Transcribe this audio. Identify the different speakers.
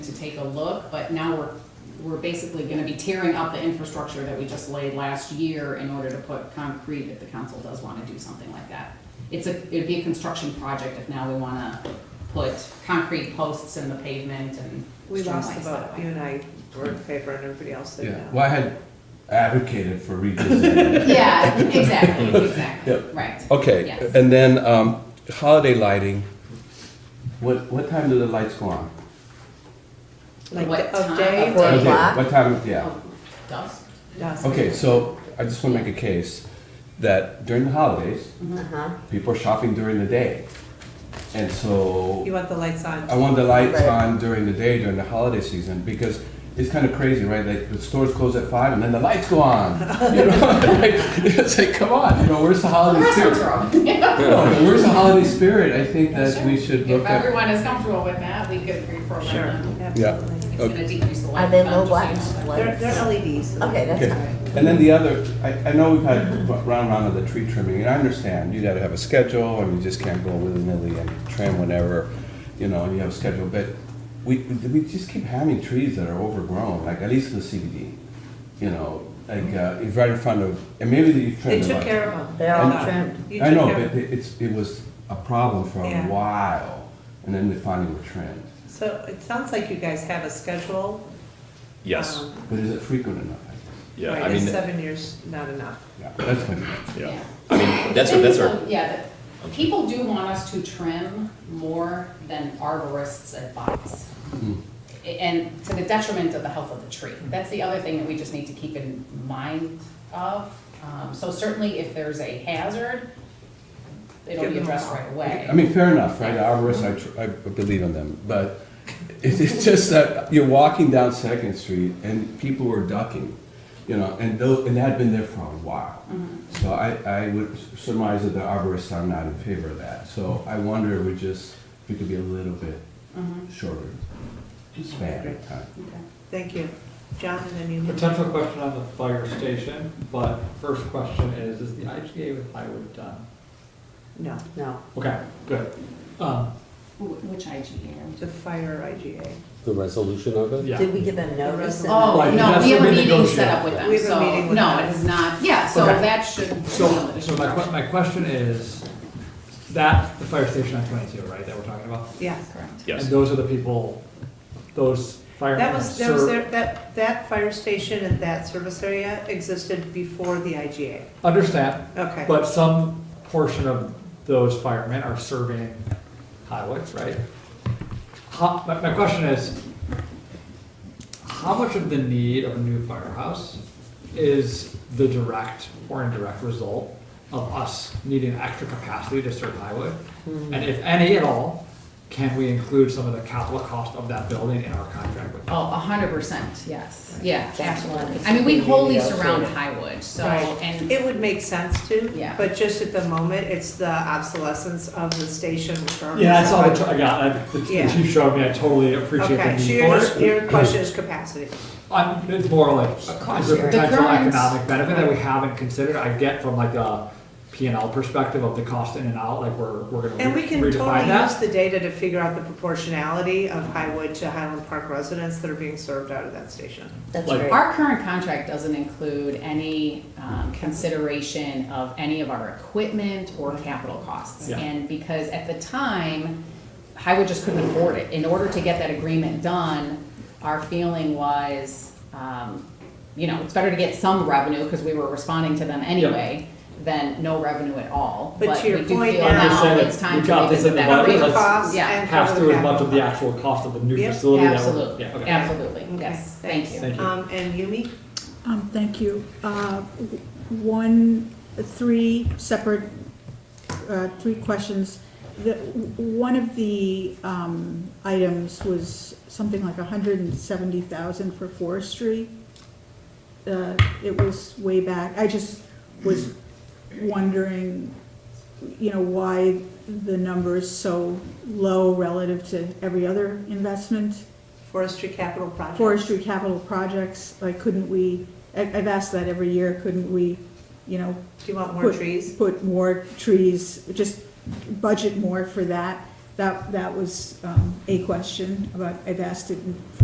Speaker 1: to take a look, but now we're, we're basically gonna be tearing up the infrastructure that we just laid last year in order to put concrete if the council does wanna do something like that. It's a, it'd be a construction project if now we wanna put concrete posts in the pavement and.
Speaker 2: We lost the
Speaker 1: streamlines
Speaker 2: vote,
Speaker 1: that way.
Speaker 2: you and I were in favor and everybody else said
Speaker 3: Yeah,
Speaker 2: no.
Speaker 3: well, I had advocated for revisiting.
Speaker 1: Yeah, exactly, exactly,
Speaker 4: Yep.
Speaker 1: right.
Speaker 3: Oh.
Speaker 4: Okay,
Speaker 1: Yes.
Speaker 4: and then um, holiday lighting,
Speaker 3: What, what time do the lights go on?
Speaker 2: Like
Speaker 1: What
Speaker 2: the-
Speaker 1: time?
Speaker 2: of day,
Speaker 1: Of day.
Speaker 2: day,
Speaker 3: Okay, What time, yeah.
Speaker 1: Oh, Dusk?
Speaker 2: dusk.
Speaker 3: Okay, so I just want to make a case that during the holidays, people are shopping during the day. And so
Speaker 2: You want the lights on?
Speaker 4: Oh.
Speaker 3: I want the lights
Speaker 4: Right.
Speaker 3: on during the day, during the holiday season, because it's kind of crazy, right? Like the stores close at five and then the lights go on. You know, like, it's like, come on, you know, where's the holiday
Speaker 1: Restaurants
Speaker 3: spirit?
Speaker 1: are open.
Speaker 3: No, Where's the holiday spirit? I think that
Speaker 1: Sure.
Speaker 3: we should look
Speaker 1: If
Speaker 3: at.
Speaker 1: everyone is comfortable with that, we could reprogram
Speaker 2: Sure,
Speaker 1: them.
Speaker 2: absolutely.
Speaker 1: It's gonna decrease the light.
Speaker 5: Are there no
Speaker 1: bill, just so
Speaker 5: lights?
Speaker 1: you know.
Speaker 2: They're, E they're LEDs. so-
Speaker 5: Okay, that's
Speaker 3: Okay,
Speaker 5: fine.
Speaker 3: and then the other, I, I know we've had round round of the tree trimming, and I understand, you gotta have a schedule, and you just can't go willy-nilly and trim whenever, you know, and you have a schedule, but we, we just keep having trees that are overgrown, like at least in the CBD, you know, like, uh, it's right in front of, and maybe you've
Speaker 2: They
Speaker 3: trimmed them.
Speaker 2: took
Speaker 3: up.
Speaker 2: care of them.
Speaker 5: They're all
Speaker 2: I thought.
Speaker 5: trimmed.
Speaker 2: You
Speaker 3: I
Speaker 2: took
Speaker 3: know,
Speaker 2: care of
Speaker 3: but it- it's, it was a problem for a
Speaker 2: Yeah.
Speaker 3: while, and then they finally were trimmed,
Speaker 2: them. So it sounds like you guys have a schedule.
Speaker 6: Yes,
Speaker 2: um,
Speaker 3: but is it frequent enough? I think?
Speaker 6: yeah,
Speaker 2: right,
Speaker 6: I
Speaker 2: is
Speaker 6: mean,
Speaker 2: seven years not enough?
Speaker 3: Yeah, that's my,
Speaker 6: yeah, I mean, that's, our-
Speaker 1: Things
Speaker 6: that's our,
Speaker 1: of- Yeah, that- people do want us to trim more than arborists advise. A- And to the detriment of the health of the tree. That's the other thing that we just need to keep in mind of. Um, So certainly if there's a hazard, it'll
Speaker 2: Give
Speaker 1: be
Speaker 2: them
Speaker 1: addressed
Speaker 2: all.
Speaker 1: right away.
Speaker 3: I mean, fair enough, right? Arborists, I, tr- I believe in them, but it's, it's just that you're walking down Second Street and people were ducking, you know, and those, and that had been there for a while.
Speaker 1: Mm-hmm.
Speaker 3: So I, I would surmise that the arborists are not in favor of that. So I wonder, if we just, if we could be a little bit shorter span of time.
Speaker 2: Thank you. John, and then you.
Speaker 7: Potential question on the fire station, but first question is, is the IGA with Highwood done?
Speaker 2: No,
Speaker 5: No.
Speaker 7: Okay, good. Um,
Speaker 1: Wh- Which IGA? are we
Speaker 2: the fire IGA.
Speaker 8: The resolution of it?
Speaker 7: yeah.
Speaker 5: Did we give them notice? and-
Speaker 1: Oh,
Speaker 7: Right,
Speaker 1: no,
Speaker 7: that's
Speaker 1: we have
Speaker 7: what
Speaker 1: a
Speaker 7: we
Speaker 1: meeting set
Speaker 7: negotiate.
Speaker 1: up with them,
Speaker 2: We have a meeting
Speaker 1: so,
Speaker 2: with
Speaker 1: no,
Speaker 2: them.
Speaker 1: it is not, yeah, so
Speaker 7: Okay.
Speaker 1: that should.
Speaker 7: So, so my que, my question is, that, the fire station on twenty-two, right, that we're talking about?
Speaker 2: Yeah.
Speaker 1: Correct.
Speaker 7: And
Speaker 6: yes,
Speaker 7: those are the people, those fire.
Speaker 2: That was, that was their,
Speaker 7: serve-
Speaker 2: that, that fire station and that service area existed before the IGA.
Speaker 7: Understand,
Speaker 2: Okay.
Speaker 7: but some portion of those firemen are serving highways, right? How, my, my question is, how much of the need of a new firehouse is the direct or indirect result of us needing extra capacity to serve highway?
Speaker 2: Hmm.
Speaker 7: And if any at all, can we include some of the capital cost of that building in our contract with?
Speaker 1: Oh, a hundred percent, yes, yeah,
Speaker 5: That's one.
Speaker 1: absolutely. I mean, we wholly surround Highwood, so,
Speaker 2: Right.
Speaker 1: and,
Speaker 2: It would make sense to.
Speaker 1: Yeah.
Speaker 2: But just at the moment, it's the obsolescence of the station. which are-
Speaker 7: Yeah, I saw the, I got, I- the
Speaker 2: Yeah.
Speaker 7: the chief showed me, I totally appreciate the
Speaker 2: Okay, so
Speaker 7: need
Speaker 2: your,
Speaker 7: for it.
Speaker 2: your question is capacity.
Speaker 7: I'm, it's more like, is
Speaker 5: Cost
Speaker 7: there
Speaker 5: sharing.
Speaker 7: potential
Speaker 1: The current-
Speaker 7: economic benefit that we haven't considered? I get from like a P and L perspective of the cost in and out, like we're, we're gonna
Speaker 2: And we
Speaker 7: re-
Speaker 2: can
Speaker 7: redefine
Speaker 2: totally use
Speaker 7: that.
Speaker 2: the data to figure out the proportionality of Highwood to Highland Park residents that are being served out of that station.
Speaker 5: That's
Speaker 7: Like-
Speaker 5: great.
Speaker 1: our current contract doesn't include any um, consideration of any of our equipment or capital costs.
Speaker 7: Yeah.
Speaker 1: And because at the time, Highwood just couldn't afford it. In order to get that agreement done, our feeling was, um, you know, it's better to get some revenue, because we were responding to them anyway, than no revenue at all.
Speaker 2: But to your
Speaker 1: we do
Speaker 2: point
Speaker 1: feel
Speaker 2: now-
Speaker 1: now
Speaker 7: Saying
Speaker 1: it's
Speaker 7: that
Speaker 1: time
Speaker 7: we
Speaker 1: to
Speaker 7: got this
Speaker 1: revisit
Speaker 7: in the
Speaker 1: that
Speaker 7: budget,
Speaker 1: agreement.
Speaker 7: let's
Speaker 2: costs
Speaker 1: Yeah.
Speaker 2: and
Speaker 7: Pass
Speaker 2: cover
Speaker 7: through as much of the
Speaker 2: capital.
Speaker 7: actual cost of the new
Speaker 2: Yep,
Speaker 7: facility that we're.
Speaker 1: Absolutely,
Speaker 7: yeah, okay.
Speaker 1: absolutely,
Speaker 2: Okay,
Speaker 1: yes, thank you.
Speaker 7: Thank you.
Speaker 2: Um, and Yumi,
Speaker 9: Um, thank you. Uh, w- One, three separate, uh, three questions. The, w- one of the, um, items was something like hundred and seventy thousand for forestry. Uh, it was way back. I just was wondering, you know, why the number is so low relative to every other investment
Speaker 2: forestry capital project.
Speaker 9: forestry capital projects, like couldn't we, I- I've asked that every year, couldn't we, you know,
Speaker 2: Do you want more
Speaker 9: Put-
Speaker 2: trees?
Speaker 9: put more trees, just budget more for that? that, that was um, a question, but I've asked it